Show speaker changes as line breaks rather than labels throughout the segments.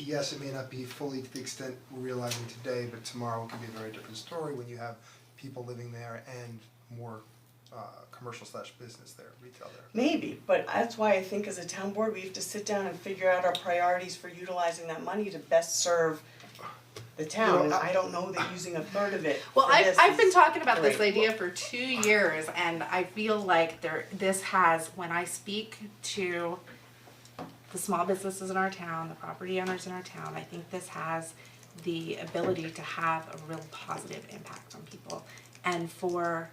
yes, it may not be fully to the extent we're realizing today, but tomorrow it could be a very different story when you have people living there and more uh commercial slash business there, retail there.
Maybe, but that's why I think as a town board, we have to sit down and figure out our priorities for utilizing that money to best serve the town, and I don't know that using a third of it
Well,
for
I've,
this
I've been
is
talking about this
great.
idea for two years, and I feel like there this has when I speak to the small businesses in our town, the property owners in our town, I think this has the ability to have a real positive impact on people. And for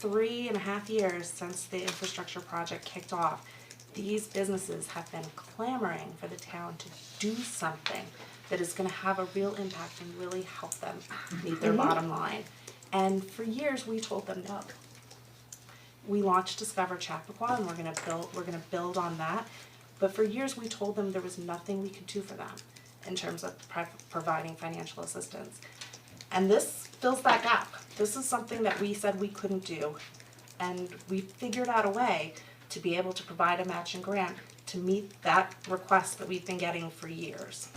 three and a half years since the infrastructure project kicked off, these businesses have been clamoring for the town to do something that is gonna have a real impact and really help them meet their bottom line. And for years, we told them no we launched Discover Chappaqua and we're gonna build, we're gonna build on that. But for years, we told them there was nothing we could do for them in terms of pro- providing financial assistance. And this fills that gap. This is something that we said we couldn't do. And we figured out a way to be able to provide a matching grant to meet that request that we've been getting for years.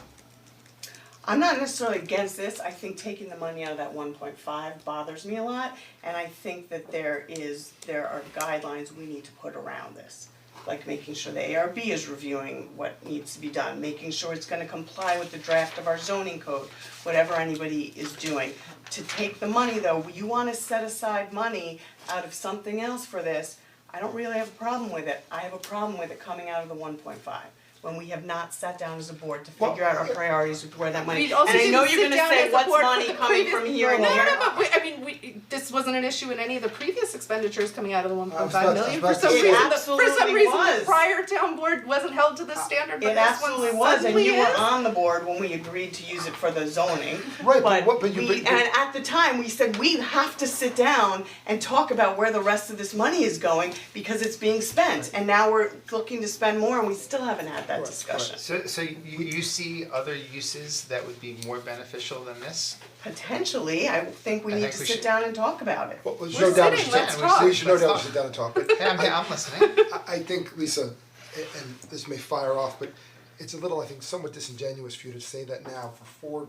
I'm not necessarily against this, I think taking the money out of that one point five bothers me a lot, and I think that there is, there are guidelines we need to put around this. Like making sure the ARB is reviewing what needs to be done, making sure it's gonna comply with the draft of our zoning code, whatever anybody is doing. To take the money though, you wanna set aside money out of something else for this, I don't really have a problem with it, I have a problem with it coming out of the one point five. When we have not sat down as a board to figure out our priorities with where that money
We also
and I know
didn't
you're
sit
gonna
down as
say,
a
what's
board for
money
the
coming
previous-
from here and
No, no,
here?
no, but we, I mean, we, this wasn't an issue in any of the previous expenditures coming out of the one
I
point
was about- I
five
was
million, for
about to
some
say-
reason,
It
the, for some
absolutely
reason, the
was.
prior town board wasn't held to the
Uh,
standard, but
It
this one
absolutely was, and
suddenly
you were
is.
on the board when we agreed to use it for the zoning.
Right, but what- but you-
we-
but- but-
and at the time, we said, we have to sit down and talk about where the rest of this money is going because it's being spent. And now we're looking to spend more and we still haven't had that discussion.
So so you you see other uses that would be more beneficial than this?
Potentially, I think we
I
need
think
to
we
sit
should-
down and talk about it.
Well, there's
We're
no doubt, we
sitting,
should,
let's
sit- we should no
talk.
doubt we should sit down and talk, but
Hey, I'm I'm listening.
I I think Lisa, a- and this may fire off, but it's a little, I think somewhat disingenuous for you to say that now for four,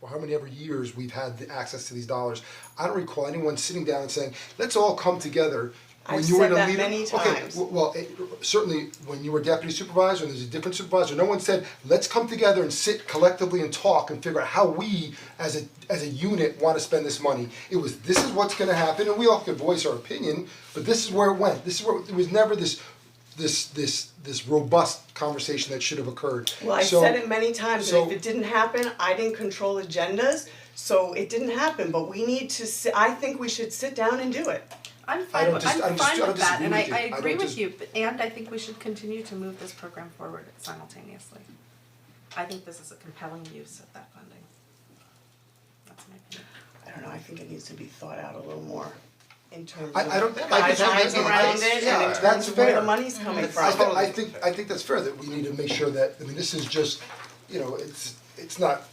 or how many ever years we've had the access to these dollars. I don't recall anyone sitting down and saying, let's all come together when
I've
you were in
said
a
that
leader.
many
Okay,
times.
w- well, it- certainly when you were deputy supervisor and there's a different supervisor, no one said, let's come together and sit collectively and talk and figure out how we as a as a unit wanna spend this money. It was, this is what's gonna happen and we all could voice our opinion, but this is where it went. This is where, it was never this this this this robust conversation that should have occurred.
Well, I
So-
said it many times, and
so-
if it didn't happen, I didn't control agendas, so it didn't happen, but we need to si- I think we should sit down and do it.
I'm
I
fine,
don't
with-
dis- I
I'm
don't dis- I
fine
don't
with that,
disagree
and I,
with you.
I
I don't
agree with
dis-
you, but- and I think we should continue to move this program forward simultaneously. I think this is a compelling use of that funding. That's my opinion.
I don't know, I think it needs to be thought out a little more in terms
I-
of
I don't- I
think that
guidelines
makes sense.
around it
Yeah,
and in
that's
terms of where
fair.
the money's coming from.
I thi- I think, I think that's fair, that we need to make sure that, I mean, this is just, you know, it's, it's not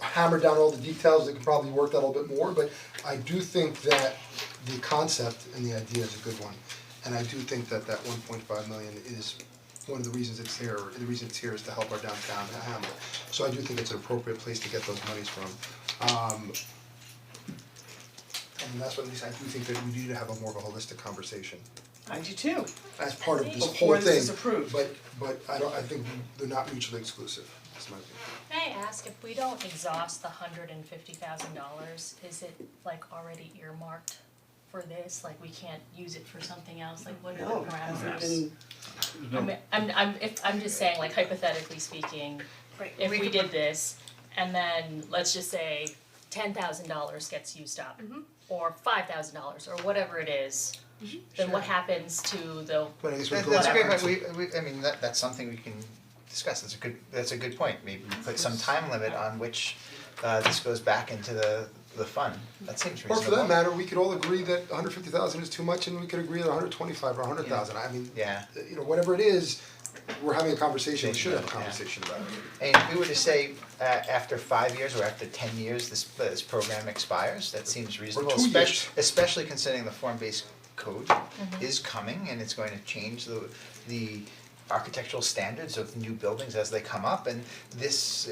hammered down all the details, it can probably work that a little bit more, but I do think that the concept and the idea is a good one. And I do think that that one point five million is one of the reasons it's here, or the reason it's here is to help our downtown Hamlet. So I do think it's an appropriate place to get those monies from. Um, and that's what, at least I do think that we need to have a more of a holistic conversation
I do too.
as part of this whole
Before
thing.
this is approved.
But but I don't, I think they're not mutually exclusive, is my opinion.
May I ask if we don't exhaust the hundred and fifty thousand dollars, is it like already earmarked for this? Like we can't use it for something else, like what are
No,
the
it hasn't
parameters?
been,
I mean, I'm I'm if I'm just saying like hypothetically speaking, if we did this and then let's just say ten thousand dollars gets used up or five thousand dollars or whatever it is, then what happens to the
But I guess we
That-
go
That's a
back
great,
to-
point. we we I mean, that that's something we can discuss, that's a good, that's a good point, maybe we put some time limit on which uh this goes back into the the fund, that seems
Or
reasonable.
for that matter, we could all agree that hundred fifty thousand is too much and we could agree on hundred twenty-five or hundred thousand, I mean,
Yeah.
you know, whatever it is, we're having a conversation, we should have a
Yeah.
conversation about it.
And if we were to say uh after five years or after ten years, this this program expires, that seems reasonable,
two
especially
years.
especially considering the form-based code is coming and it's going to change the the architectural standards of new buildings as they come up and this